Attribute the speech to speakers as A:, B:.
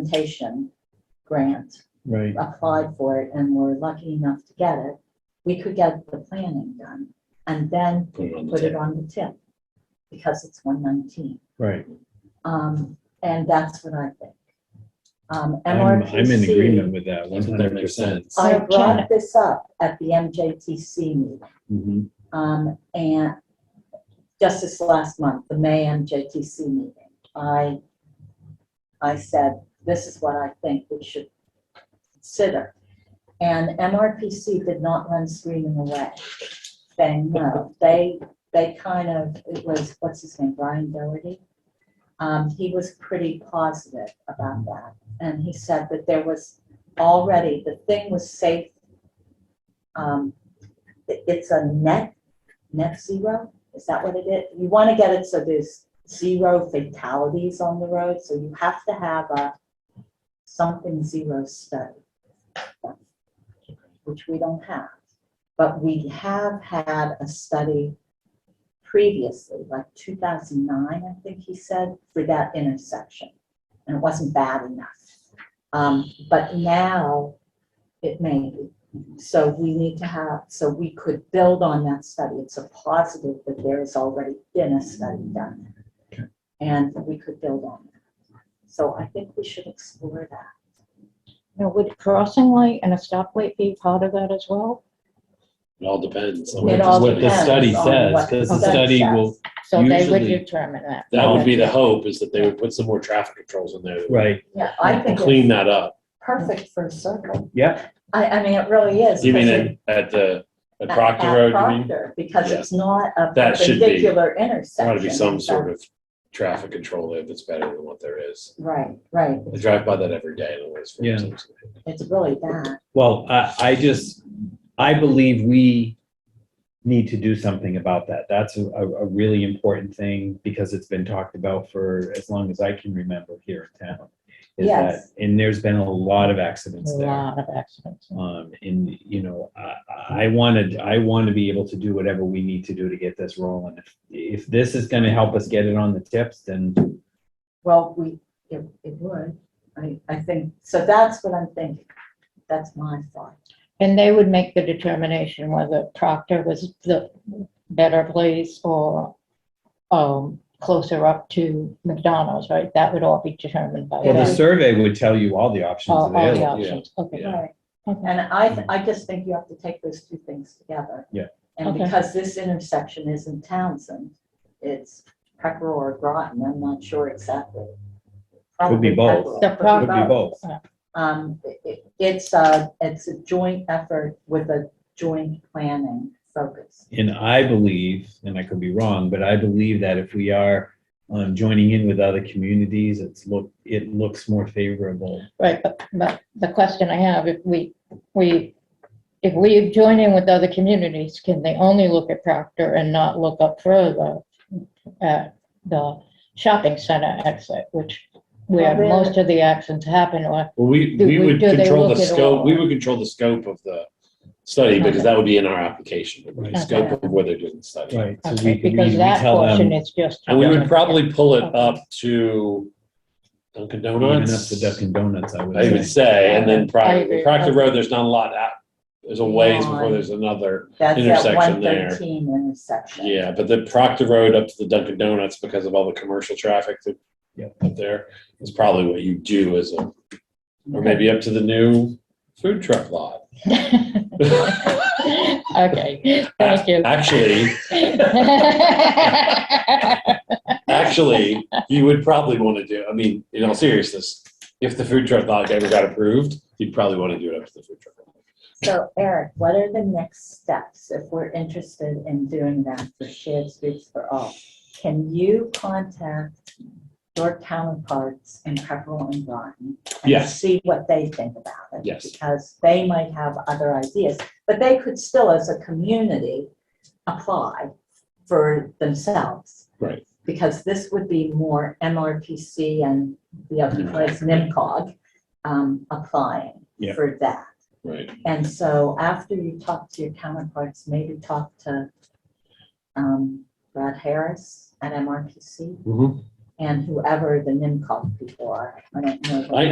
A: implementation grant,
B: Right,
A: applied for it and were lucky enough to get it, we could get the planning done and then
C: Put it on the
A: put it
C: tip.
A: on the tip because it's one nineteen.
B: right.
A: Um, and that's what I think. Um,
B: I'm, I'm in
A: MRPC
B: agreement with that one
C: That's what
B: hundred
C: that
B: percent.
C: makes
A: I
D: So,
A: brought this up at the MJTC meeting,
B: Right,
A: um, and just this last month, the May MJTC meeting, I, I said, this is what I think we should consider. And MRPC did not run screaming away, saying no. They, they kind of, it was, what's his name, Brian Doherty? Um, he was pretty positive about that, and he said that there was already, the thing was safe. Um, it- it's a net, net zero, is that what it is? You want to get it so there's zero fatalities on the road, so you have to have a something zero study, which we don't have. But we have had a study previously, like 2009, I think he said, for that intersection. And it wasn't bad enough. Um, But now, it may be. So we need to have, so we could build on that study. It's a positive that there has already been a study done.
B: Okay.
A: And we could build on that. So I think we should explore that.
D: Now, would crossing light and a stoplight be part of that as well?
C: It all depends. on
B: What
A: It
B: the-
A: all
B: what the
A: depends
B: study
A: on
B: says,
A: what
B: 'cause
D: the
B: study
A: says.
B: will-
D: So they would
C: Usually-
D: determine that.
C: That would be the hope, is that they would put some more traffic controls in there. that would
A: Yeah, I think
C: Clean
A: it's
C: that up.
A: perfect for a circle.
B: yeah,
A: I, I mean, it really is.
C: You mean
A: because
C: at, at the, at
A: at-
C: Proctor
A: at
C: Road, you mean?
A: Proctor, Because
C: Yeah.
A: it's not a
C: That should be-
A: perpendicular intersection.
C: There ought to be some sort of traffic control there that's better than what there is.
A: Right, right.
C: I drive by that every day and always.
B: Yeah.
A: It's really bad.
B: well, I, I just, I believe we need to do something about that. That's a, a really important thing because it's been talked about for as long as I can remember here in town. is that-
A: Yes.
B: And there's been a lot of
D: A
B: accidents there.
D: lot of accidents.
B: Um, and, you know, I, I wanted, I want to be able to do whatever we need to do to get this rolling. If- If this is gonna help us get it on the tips, then,
A: Well, we, it, it would. I, I think, so that's what I'm thinking. That's my thought.
D: And they would make the determination whether Proctor was the better place or um, closer up to McDonald's, right? That would all be determined by
B: well, the
D: them.
B: survey would tell you all the options
D: All all the
B: available.
D: options. Okay.
C: Yeah.
A: Right.
D: Okay.
A: And I, I just think you have to take those two things together.
B: Yeah.
A: And
D: Okay.
A: because this intersection is in Townsend, it's Pecker or Groton, I'm not sure exactly.
B: Could be
A: Probably
B: both.
A: Peckerell,
D: The
A: could be
B: Could be both.
A: Um, i- i- it's a, it's a joint effort with a joint planning focus.
B: And I believe, and I could be wrong, but I believe that if we are, um, joining in with other communities, it's look, it looks more favorable.
D: Right, but, but the question I have, if we, we, if we join in with other communities, can they only look at Proctor and not look up further at the shopping center exit, which where
A: Well, then-
D: most of the accidents happen, or
C: Well, we,
D: Do
C: we
D: we-
C: would
D: do they
C: control the
D: look at
C: scope,
D: all?
C: we would control the scope of the study because
D: Okay.
C: that would be in our application, the
B: Right.
C: scope of where they're doing the study.
B: Right. So we,
D: Okay,
B: we
D: because
B: we
D: that
B: tell them
D: portion
B: even
D: is just.
C: And we would probably pull it up to Dunkin'
B: up
C: Donuts.
B: to Dunkin' Donuts, I would
C: I would
B: say.
C: say, and then
D: I
C: Proctor,
D: agree.
C: Proctor Road, there's not a lot out, there's a ways before
A: Beyond.
C: there's another,
A: That's that
C: Intersection
A: one
C: there.
A: thirteen intersection.
C: yeah, but the Proctor Road up to the Dunkin' Donuts, because of all the commercial traffic that
B: Yep.
C: up there, is probably what you do as a, or maybe up to the new food truck lot.
D: Okay, thank you.
C: Actually, actually, you would probably want to do, I mean, in all seriousness, if the food truck lot ever got approved, you'd probably want to do it up to the food truck. lot.
A: So Eric, what are the next steps if we're interested in doing that for shared streets for all? Can you contact your counterparts in Pepperell and Groton? and
C: Yes.
A: See what they think about it?
C: Yes.
A: Because they might have other ideas, but they could still, as a community, apply for themselves.
C: Right.
A: Because this would be more MRPC and the
C: Mm-hmm.
A: other place, NIMCOG, um, applying
B: Yeah.
A: for that.
C: Right.
A: And so after you talk to your counterparts, maybe talk to um, Brad Harris at MRPC
C: Mhm.
A: and whoever the NIMCOG people are. I don't know.
C: I-